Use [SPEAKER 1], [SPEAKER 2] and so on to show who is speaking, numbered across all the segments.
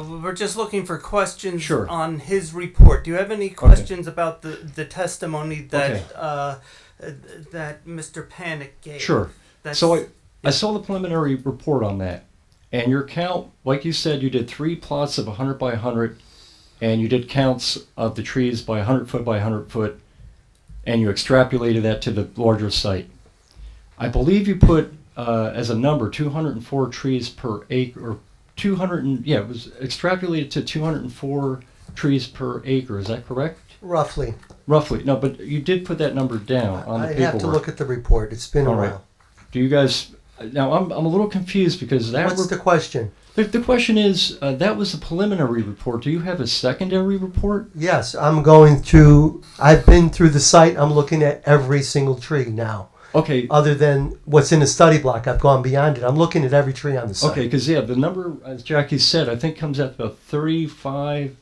[SPEAKER 1] We're just looking for questions
[SPEAKER 2] Sure.
[SPEAKER 1] on his report. Do you have any questions about the, the testimony that
[SPEAKER 2] Okay.
[SPEAKER 1] uh, uh, that Mr. Panic gave?
[SPEAKER 2] Sure.
[SPEAKER 1] That's,
[SPEAKER 2] so I, I saw the preliminary report on that, and your count, like you said, you did three plots of 100 by 100, and you did counts of the trees by 100 foot by 100 foot, and you extrapolated that to the larger site. I believe you put uh, as a number 204 trees per acre, or 200, and, yeah, it was extrapolated to 204 trees per acre. Is that correct?
[SPEAKER 3] Roughly.
[SPEAKER 2] Roughly. No, but you did put that number down on the
[SPEAKER 3] I
[SPEAKER 2] paperwork.
[SPEAKER 3] have to look at the report. It's been a
[SPEAKER 2] All right.
[SPEAKER 3] while.
[SPEAKER 2] Do you guys? Now I'm, I'm a little confused because that
[SPEAKER 3] What's the question?
[SPEAKER 2] the, the question is uh, that was the preliminary report. Do you have a secondary report?
[SPEAKER 3] Yes, I'm going through, I've been through the site. I'm looking at every single tree now.
[SPEAKER 2] Okay,
[SPEAKER 3] Other than what's in the study block, I've gone beyond it. I'm looking at every tree on the site.
[SPEAKER 2] okay, because yeah, the number as Jackie said, I think comes out to about thirty five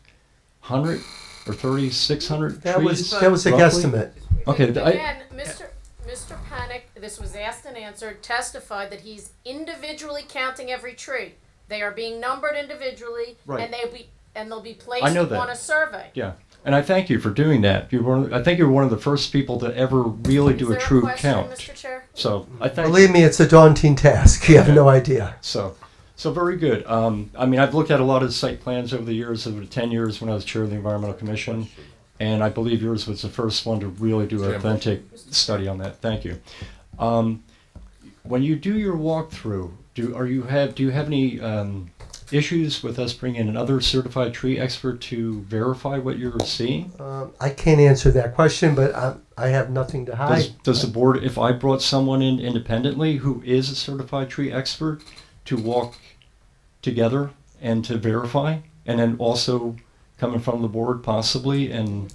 [SPEAKER 2] hundred or thirty six hundred.
[SPEAKER 3] That was, that was a
[SPEAKER 2] roughly?
[SPEAKER 3] guesstimate.
[SPEAKER 2] Okay, th- I-
[SPEAKER 4] Again, Mr. Mr. Panic, this was asked and answered, testified that he's individually counting every tree. They are being numbered individually,
[SPEAKER 2] Right.
[SPEAKER 4] and they'll be, and they'll be placed
[SPEAKER 2] I know that.
[SPEAKER 4] on a survey.
[SPEAKER 2] Yeah, and I thank you for doing that. You were I think you were one of the first people to ever really
[SPEAKER 4] Is
[SPEAKER 2] do
[SPEAKER 4] there
[SPEAKER 2] a true
[SPEAKER 4] question,
[SPEAKER 2] count.
[SPEAKER 4] Mr. Chair?
[SPEAKER 2] So I thank. you.
[SPEAKER 3] Believe me, it's a daunting task. You have no idea.
[SPEAKER 2] So, so very good. Um, I mean, I've looked at a lot of site plans over the years, over the ten years when I was chair of the environmental commission, and I believe yours was the first one to really do an authentic study on that. Thank you. Um, when you do your walkthrough, do are you have do you have any um, issues with us bringing in another certified tree expert to verify what you're seeing?
[SPEAKER 3] Um, I can't answer that question, but I, I have nothing to hide.
[SPEAKER 2] Does, does the board, if I brought someone in independently who is a certified tree expert to walk together and to verify, and then also come in front of the board possibly and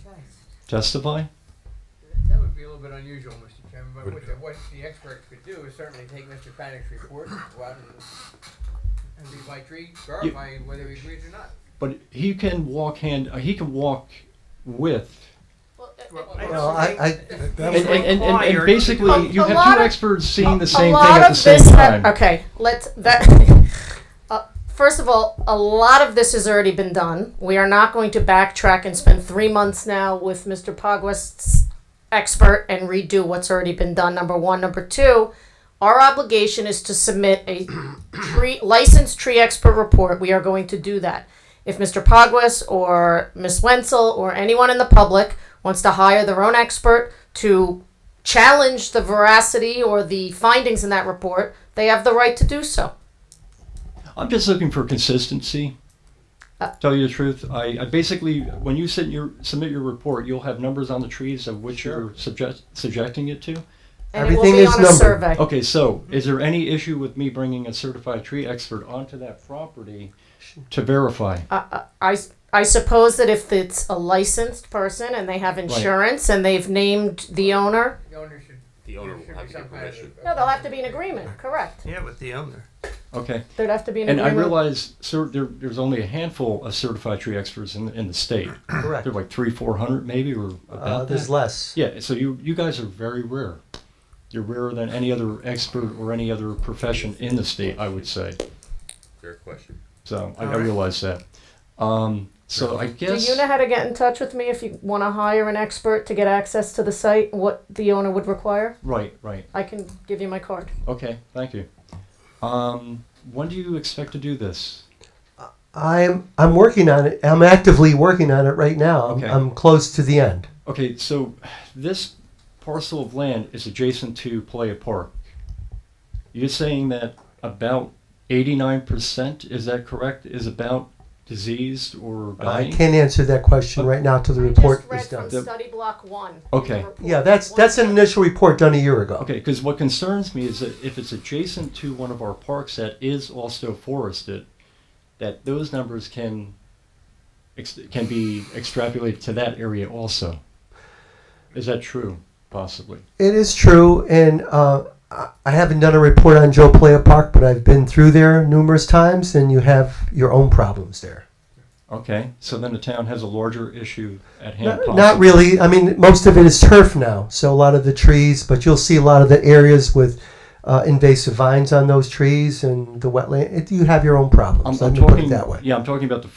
[SPEAKER 2] testify?
[SPEAKER 5] That would be a little bit unusual, Mr. Chairman, but what the, what the expert could do is certainly take Mr. Panic's report, go out and, and be by tree, verify whether he agrees or not.
[SPEAKER 2] But he can walk hand, uh, he can walk with.
[SPEAKER 4] Well, uh, uh,
[SPEAKER 5] Well,
[SPEAKER 1] I
[SPEAKER 3] Well, I, I, uh,
[SPEAKER 2] And, and, and, and- and
[SPEAKER 1] Required.
[SPEAKER 2] basically,
[SPEAKER 4] A-
[SPEAKER 2] you
[SPEAKER 4] a
[SPEAKER 2] have
[SPEAKER 4] lot
[SPEAKER 2] two
[SPEAKER 4] of-
[SPEAKER 2] experts seeing the same
[SPEAKER 4] a
[SPEAKER 2] thing
[SPEAKER 4] lot
[SPEAKER 2] at the
[SPEAKER 4] of
[SPEAKER 2] same
[SPEAKER 4] this ha-
[SPEAKER 2] time.
[SPEAKER 4] okay, let's that. uh, first of all, a lot of this has already been done. We are not going to backtrack and spend three months now with Mr. Pogwest's expert and redo what's already been done. Number one, number two. Our obligation is to submit a tree licensed tree expert report. We are going to do that. If Mr. Pogwest or Ms. Wenzel or anyone in the public wants to hire their own expert to challenge the veracity or the findings in that report, they have the right to do so.
[SPEAKER 2] I'm just looking for consistency.
[SPEAKER 4] Uh,
[SPEAKER 2] Tell you the truth, I, I basically, when you send your, submit your report, you'll have numbers on the trees of which you're subject, subjecting it to.
[SPEAKER 4] And
[SPEAKER 3] Everything
[SPEAKER 4] it will be
[SPEAKER 3] is
[SPEAKER 4] on a
[SPEAKER 3] numbered.
[SPEAKER 4] survey.
[SPEAKER 2] Okay, so is there any issue with me bringing a certified tree expert onto that property to verify?
[SPEAKER 4] Uh, I, s- I suppose that if it's a licensed person and they have insurance and they've named the owner,
[SPEAKER 5] The owner should,
[SPEAKER 6] The
[SPEAKER 5] there
[SPEAKER 6] owner will
[SPEAKER 5] should
[SPEAKER 6] have
[SPEAKER 5] be
[SPEAKER 6] to
[SPEAKER 5] some
[SPEAKER 6] get
[SPEAKER 5] kind of.
[SPEAKER 6] permission.
[SPEAKER 4] no, they'll have to be in agreement, correct?
[SPEAKER 1] Yeah, with the owner.
[SPEAKER 2] Okay,
[SPEAKER 4] There'd have to be an
[SPEAKER 2] and I
[SPEAKER 4] agreement.
[SPEAKER 2] realize, sir, there, there's only a handful of certified tree experts in, the- in the state.
[SPEAKER 3] correct.
[SPEAKER 2] There are like three, four hundred maybe, or
[SPEAKER 3] Uh,
[SPEAKER 2] about
[SPEAKER 3] there's
[SPEAKER 2] that.
[SPEAKER 3] less.
[SPEAKER 2] Yeah, so you, you guys are very rare. You're rarer than any other expert or any other profession in the state, I would say.
[SPEAKER 6] Fair question.
[SPEAKER 2] So I,
[SPEAKER 1] All
[SPEAKER 2] I
[SPEAKER 1] right.
[SPEAKER 2] realize that. Um, so I
[SPEAKER 4] do
[SPEAKER 2] guess
[SPEAKER 4] you know how to get in touch with me if you want to hire an expert to get access to the site? What the owner would require?
[SPEAKER 2] right, right.
[SPEAKER 4] I can give you my card.
[SPEAKER 2] Okay, thank you. Um, when do you expect to do this?
[SPEAKER 3] I'm I'm working on it. I'm actively working on it right now. I'm,
[SPEAKER 2] Okay.
[SPEAKER 3] I'm close to the end.
[SPEAKER 2] Okay, so this parcel of land is adjacent to Playa Park. You're saying that about eighty-nine percent, is that correct, is about diseased or
[SPEAKER 3] I
[SPEAKER 2] dying?
[SPEAKER 3] can't answer that question right now till the
[SPEAKER 4] I
[SPEAKER 3] report
[SPEAKER 4] just read
[SPEAKER 3] is done.
[SPEAKER 4] from Study Block One.
[SPEAKER 2] Okay.
[SPEAKER 4] The report.
[SPEAKER 3] Yeah, that's that's an initial report done a year ago.
[SPEAKER 2] Okay, because what concerns me is that if it's adjacent to one of our parks that is also forested, that those numbers can ex- can be extrapolated to that area also. Is that true? Possibly.
[SPEAKER 3] It is true, and uh, I I haven't done a report on Joe Playa Park, but I've been through there numerous times, and you have your own problems there.
[SPEAKER 2] Okay, so then the town has a larger issue at hand.
[SPEAKER 3] Not, not
[SPEAKER 2] possibly.
[SPEAKER 3] really. I mean, most of it is turf now, so a lot of the trees, but you'll see a lot of the areas with uh, invasive vines on those trees and the wetland. It, you have your own problems.
[SPEAKER 2] I'm,
[SPEAKER 3] Let
[SPEAKER 2] I'm
[SPEAKER 3] me put it
[SPEAKER 2] talking
[SPEAKER 3] that way.
[SPEAKER 2] Yeah, I'm talking about the